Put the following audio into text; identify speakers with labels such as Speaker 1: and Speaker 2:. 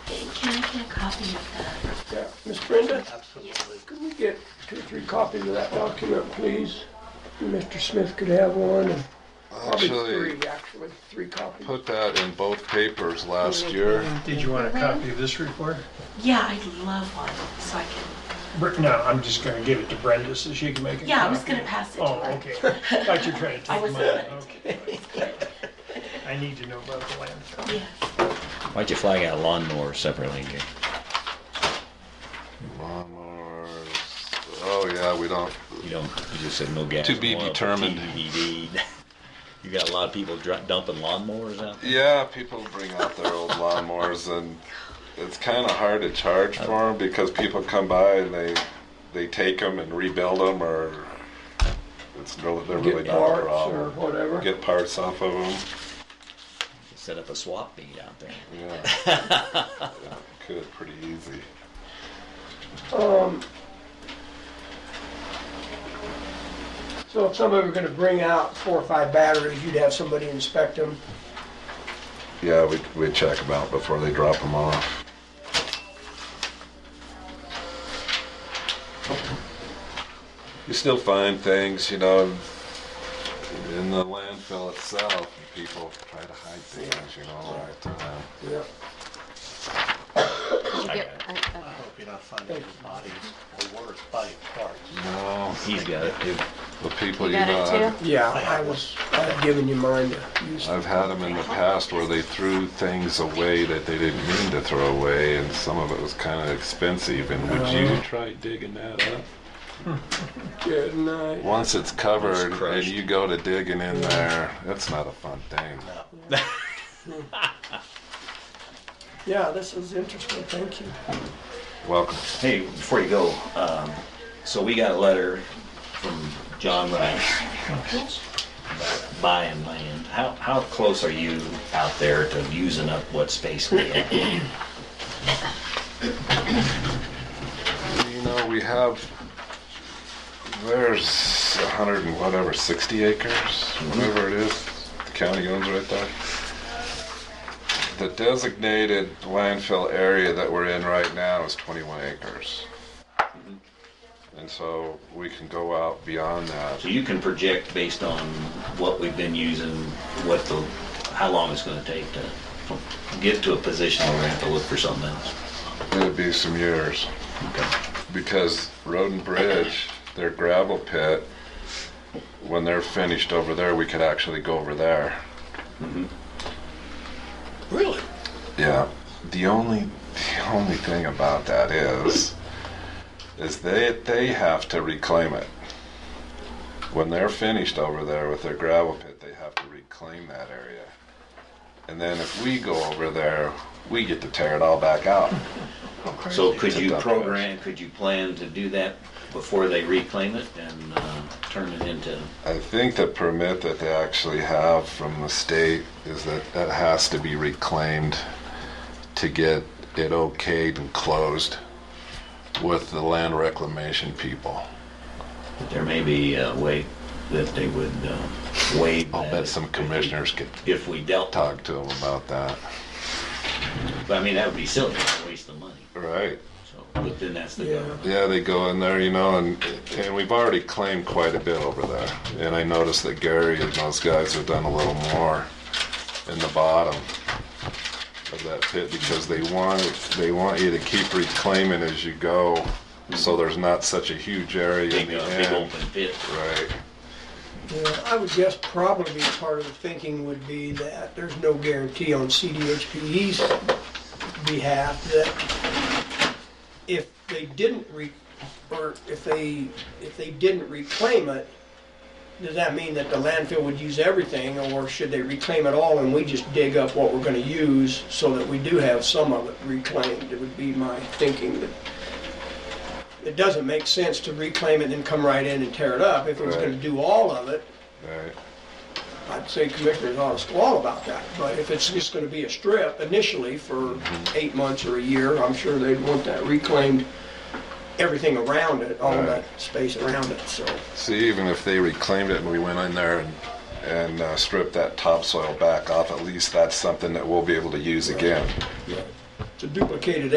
Speaker 1: me a copy of that?
Speaker 2: Yeah, Miss Brenda,
Speaker 3: Absolutely.
Speaker 2: could we get two or three copies of that document, please? And Mr. Smith could have one, and probably
Speaker 4: Actually,
Speaker 2: three, actually, three copies.
Speaker 4: put that in both papers last year.
Speaker 5: Did you want a copy of this report?
Speaker 1: Yeah, I'd love one, so I can,
Speaker 5: Br- No, I'm just gonna give it to Brenda so she can make a copy.
Speaker 1: yeah, I was gonna pass it to
Speaker 5: Oh,
Speaker 1: her.
Speaker 5: okay. Thought you were trying to
Speaker 1: I
Speaker 5: take
Speaker 1: wasn't
Speaker 5: mine.
Speaker 1: gonna take
Speaker 5: Okay. I need to know about the landfill.
Speaker 1: Yeah.
Speaker 6: Why'd you flag out lawnmower separately? Gary?
Speaker 4: Lawnmowers. Oh, yeah, we don't.
Speaker 6: You don't, you just said no gas.
Speaker 4: To be
Speaker 6: oil,
Speaker 4: determined.
Speaker 6: TBD. You got a lot of people dr- dumping lawnmowers out there?
Speaker 4: Yeah, people bring out their old lawnmowers, and it's kind of hard to charge for them because people come by and they they take them and rebuild them, or it's no, they're really
Speaker 2: Get
Speaker 4: not a
Speaker 2: parts or
Speaker 4: problem.
Speaker 2: whatever.
Speaker 4: Get parts off of them.
Speaker 6: Set up a swap meet out there.
Speaker 4: Yeah, Yeah, could pretty easy.
Speaker 2: Um, so if somebody were gonna bring out four or five batteries, you'd have somebody inspect them.
Speaker 4: Yeah, we we check them out before they drop them off. You still find things, you know, in the landfill itself. People try to hide things, you know, all the time.
Speaker 2: Yeah.
Speaker 7: You get- uh, I-
Speaker 3: I
Speaker 7: I-
Speaker 3: hope you're not finding bodies or worse, body parts.
Speaker 4: No,
Speaker 6: He's got it too.
Speaker 4: the people
Speaker 7: You
Speaker 4: you
Speaker 7: got
Speaker 4: know,
Speaker 7: it
Speaker 4: I've-
Speaker 7: too?
Speaker 2: Yeah, I was, I've given you mine to use.
Speaker 4: I've had them in the past where they threw things away that they didn't mean to throw away, and some of it was kind of expensive. And would you try digging that up?
Speaker 2: Good night.
Speaker 4: Once it's covered
Speaker 6: It's
Speaker 4: and
Speaker 6: crushed.
Speaker 4: you go to digging in there, that's not a fun thing.
Speaker 2: Yeah, this is interesting, thank you.
Speaker 4: Welcome.
Speaker 6: Hey, before you go, um, so we got a letter from John Rice about buying land. How, how close are you out there to using up what space we have?
Speaker 4: You know, we have, there's a hundred and whatever, 60 acres, whatever it is, the county owns right there. The designated landfill area that we're in right now is 21 acres. And so we can go out beyond that.
Speaker 6: So you can project based on what we've been using, what the, how long it's gonna take to get to a position where we have to look for something else.
Speaker 4: It'd be some years.
Speaker 6: Okay.
Speaker 4: because Road and Bridge, their gravel pit, when they're finished over there, we could actually go over there.
Speaker 3: Really?
Speaker 4: Yeah. The only the only thing about that is is they they have to reclaim it. When they're finished over there with their gravel pit, they have to reclaim that area. And then if we go over there, we get to tear it all back out.
Speaker 6: So could
Speaker 4: It's
Speaker 6: you
Speaker 4: a dump
Speaker 6: program, could you plan to do that before they reclaim it and uh, turn it into,
Speaker 4: I think the permit that they actually have from the state is that that has to be reclaimed to get it okayed and closed with the land reclamation people.
Speaker 6: there may be a way that they would uh, waive
Speaker 4: I'll
Speaker 6: that
Speaker 4: bet
Speaker 6: if-
Speaker 4: some commissioners could
Speaker 6: If we dealt,
Speaker 4: talk to them about that.
Speaker 6: but I mean, that would be silly, a waste of money.
Speaker 4: Right.
Speaker 6: So, but then that's the
Speaker 2: Yeah.
Speaker 6: government.
Speaker 4: Yeah, they go in there, you know, and and we've already claimed quite a bit over there. And I noticed that Gary and those guys have done a little more in the bottom of that pit because they want they want you to keep reclaiming as you go, so there's not such a huge area in
Speaker 6: Big,
Speaker 4: the
Speaker 6: uh, big
Speaker 4: end.
Speaker 6: open pit.
Speaker 4: Right.
Speaker 2: Yeah, I would guess probably part of the thinking would be that there's no guarantee on CDHPE's behalf that if they didn't re, or if they, if they didn't reclaim it, does that mean that the landfill would use everything, or should they reclaim it all and we just dig up what we're gonna use so that we do have some of it reclaimed? It would be my thinking that it doesn't make sense to reclaim it and then come right in and tear it up. If it was
Speaker 4: Right.
Speaker 2: gonna do all of it,
Speaker 4: Right.
Speaker 2: I'd say commissioners ought to squall about that, but if it's just gonna be a strip initially for eight months or a year, I'm sure they'd want that reclaimed, everything around it, all
Speaker 4: Right.
Speaker 2: that space around it, so.
Speaker 4: See, even if they reclaimed it and we went in there and and uh, stripped that topsoil back off, at least that's something that we'll be able to use again.
Speaker 2: It's a duplicated